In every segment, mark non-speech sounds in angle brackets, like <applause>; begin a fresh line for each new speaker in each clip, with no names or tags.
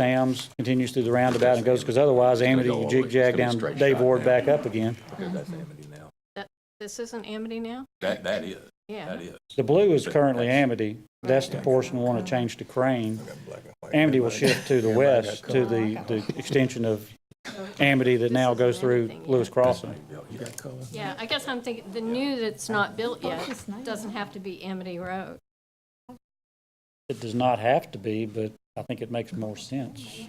Sam's, continues through the roundabout and goes, because otherwise Amity,
go all
you
the way. It's
jig-jag
gonna
down
straight
Dave
shot
Ward
now.
back up again.
Because that's Amity now.
This isn't Amity now?
That, that is,
Yeah.
that is.
The blue is
But
currently
that's-
Amity. That's the portion we want to change to Crane.
I got black and white.
Amity will shift to the
Everybody
west,
got
to the, the extension of Amity that now goes through Lewis Crossing.
color. You got color?
Yeah, I guess I'm thinking, the new that's not built yet doesn't have to be Amity Road.
It does not have to be, but I think it makes more sense.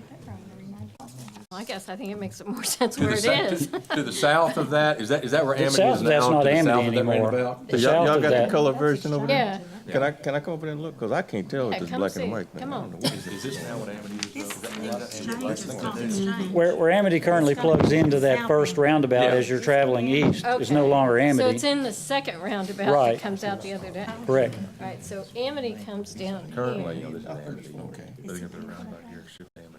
Well, I guess I think it makes it more <laughs> sense
To
where
the
it
sou-
is. <laughs>
To to the south of that, is that, is that where
The
Amity is now?
south, that's
To
not
the south
Amity
of that
anymore.
roundabout?
The
Y'all,
south
y'all
of
got the
that,
color version over there?
Yeah,
Can I, can I come over there and look? Cause I can't tell
Yeah,
if it's
come
black
see.
and white.
Come on.
Is is this now what Amity is? though?
where, where Amity currently plugs into that first roundabout as you're traveling east is no
Okay.
longer
so it's
Amity.
in the second roundabout
Right.
that comes out the other day.
Correct.
Right, so Amity comes down
Currently,
here.
you know, this is Amity. Okay.
They're gonna put a roundabout here, shift to Amity.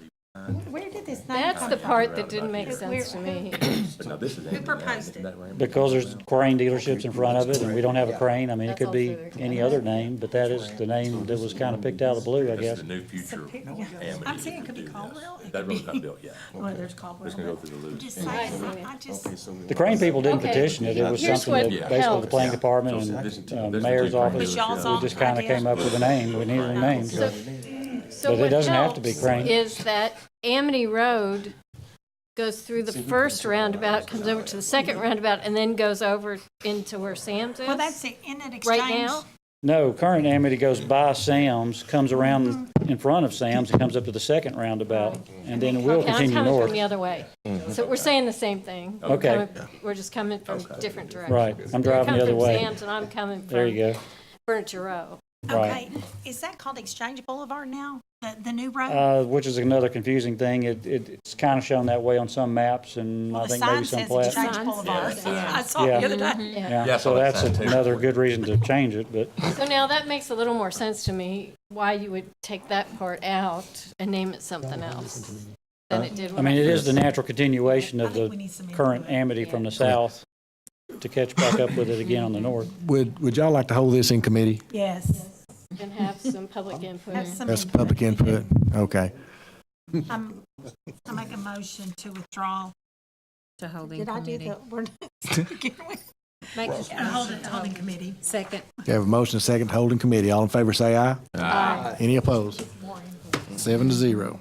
Where did this name
That's
come
the
from?
part that didn't make sense to me.
But now this is Amity. now,
proposed
isn't
it?
that where Amity is?
Because there's crane dealerships in front of it, and we don't have a crane, I mean, it
That's
could be
also there.
any other name, but that is the name that was kind of picked out of the blue, I
This
guess.
is the new future of
Yeah.
Amity.
I'm
if
saying
we
it could be
do this.
Caldwell, it
That
could
road's
be-
not built yet.
Well, there's Caldwell.
It's gonna go through the loop.
Just saying, I just,
The crane people didn't
Okay.
petition it, it was
Here's
something that
what
basically
helps.
the planning department
So this-
and uh,
this is
mayor's
the crane
office,
dealership.
y'all's
we just kind of came up with a name, we needed a name.
So, so
But it
what
doesn't have to be
helps
crank.
is that Amity Road goes through the first roundabout, comes over to the second roundabout, and then goes over into where Sam's is.
well, that's the Inlet Exchange.
Right now,
No, current Amity goes by Sam's, comes around
Mm-hmm.
in front of Sam's, and comes up to the second roundabout, and then we'll
okay, I'm
continue
coming from
north.
the other way. So we're saying the same thing. We're
Okay.
coming- We're just coming from different directions.
Right, I'm driving the other
You're coming
way.
from Sam's and I'm coming from.
There you go.
Furniture Row.
Right.
Okay, is that called Exchange Boulevard now? The, the new road?
Uh, which is another confusing thing. It, it, it's kind of shown that way on some maps and
Well,
I
the
think maybe
sign
some
says
plats.
Exchange
Sign
Boulevard.
says, yeah.
I saw it the other day.
Yeah,
I
so
saw that
that's
sign too.
another good reason to change it,
<laughs>
but
So now that makes a little more sense to me, why you would take that part out and name it something else than it did
I
when I
mean, it is
first.
the natural continuation
I
of
think we need
the
some
current
input.
amity from the south to catch back up with it again on the north.
Would, would y'all like to hold this in committee?
Yes.
And have some public input.
Have some
That's
input.
public input? Okay.
Um, I make a motion to withdraw.
to holding
Did I do
committee.
the, we're not, to begin with?
Make a
Hold it, holding committee.
Second.
We have a motion, second, holding committee. All in favor, say aye. Aye. Any opposed? Seven to zero.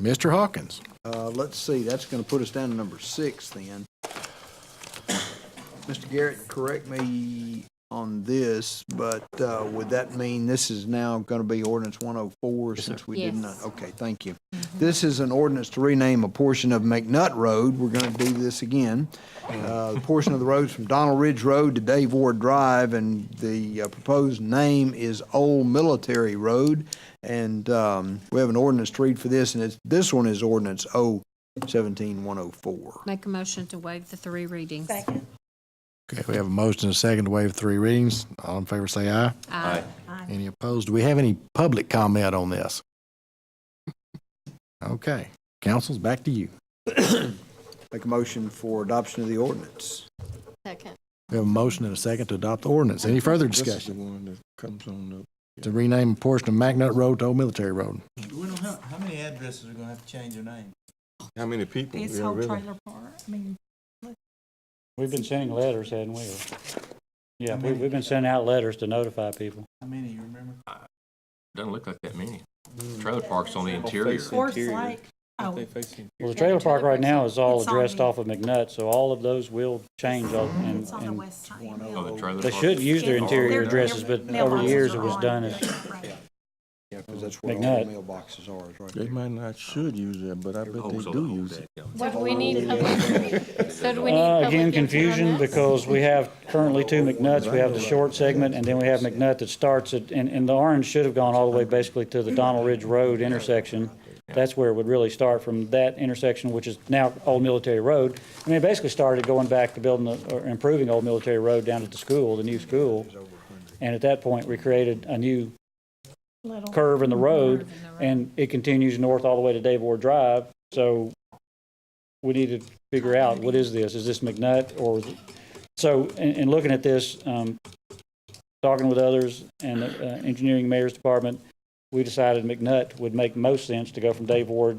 Mr. Hawkins?
Uh, let's see, that's gonna put us down to number six then. Mr. Garrett, correct me on this, but, uh, would that mean this is now gonna be ordinance one oh four since we did not?
Yes.
Okay, thank you. This is an ordinance to rename a portion of McNutt Road. We're gonna do this again. Uh, the portion of the road from Donald Ridge Road to Dave Ward Drive, and the uh, proposed name is Old Military Road. And, um, we have an ordinance to read for this, and it's, this one is ordinance O seventeen one oh four.
Make a motion to waive the three readings.
Second.
Okay, we have a motion, second, to waive three readings. All in favor, say aye.
Aye.
Any opposed? Do we have any public comment on this? Okay. Council's back to you.
Make a motion for adoption of the ordinance.
second.
We have a motion and a second to adopt the ordinance. Any further discussion?
one that comes on the.
To rename a portion of McNutt Road to Old Military Road.
How many addresses are gonna have to change their name?
How many people?
This
Yeah,
whole
really.
trailer park, I mean,
We've been sending letters, hadn't we? Or- Yeah, we, we've been sending out letters to notify people.
How many, you remember?
Doesn't look like that many.
Mm.
Trailer parks on the
Or
interior.
face
Forest
interior.
Lake.
If
Oh,
they face in-
Well, the trailer park right now is all
It's on
addressed
the-
off of McNutt, so all of those will change all- and,
it's on the
and
west side.
Oh, the trailer
they
park.
should use their
Yeah.
interior
Their-
addresses,
their
but over the
mailboxes
years it
are
was
on
done
the
as
right.
Yeah, because that's where all the mailboxes are, is right
They
there.
might not should use that, but I bet
Oh,
they
so the
do
whole
use
thing,
it.
yeah.
So do we need public, so do we need
Uh,
public
Again,
input on
confusion
this?
because we have currently two McNutts. We have the short segment and then we have McNutt that starts at, and, and the orange should have gone all the way basically to the Donald Ridge Road intersection. That's where it would really start from that intersection, which is now Old Military Road. I mean, it basically started going back to building, the- or improving Old Military Road down to the school, the new school. And at that point, we created a new
Little.
curve in the road, and it continues north all the way to Dave Ward Drive. So we need to figure out, what is this? Is this McNutt or, so, in, in looking at this, um, talking with others and the uh, engineering mayor's department, we decided McNutt would make most sense to go from Dave Ward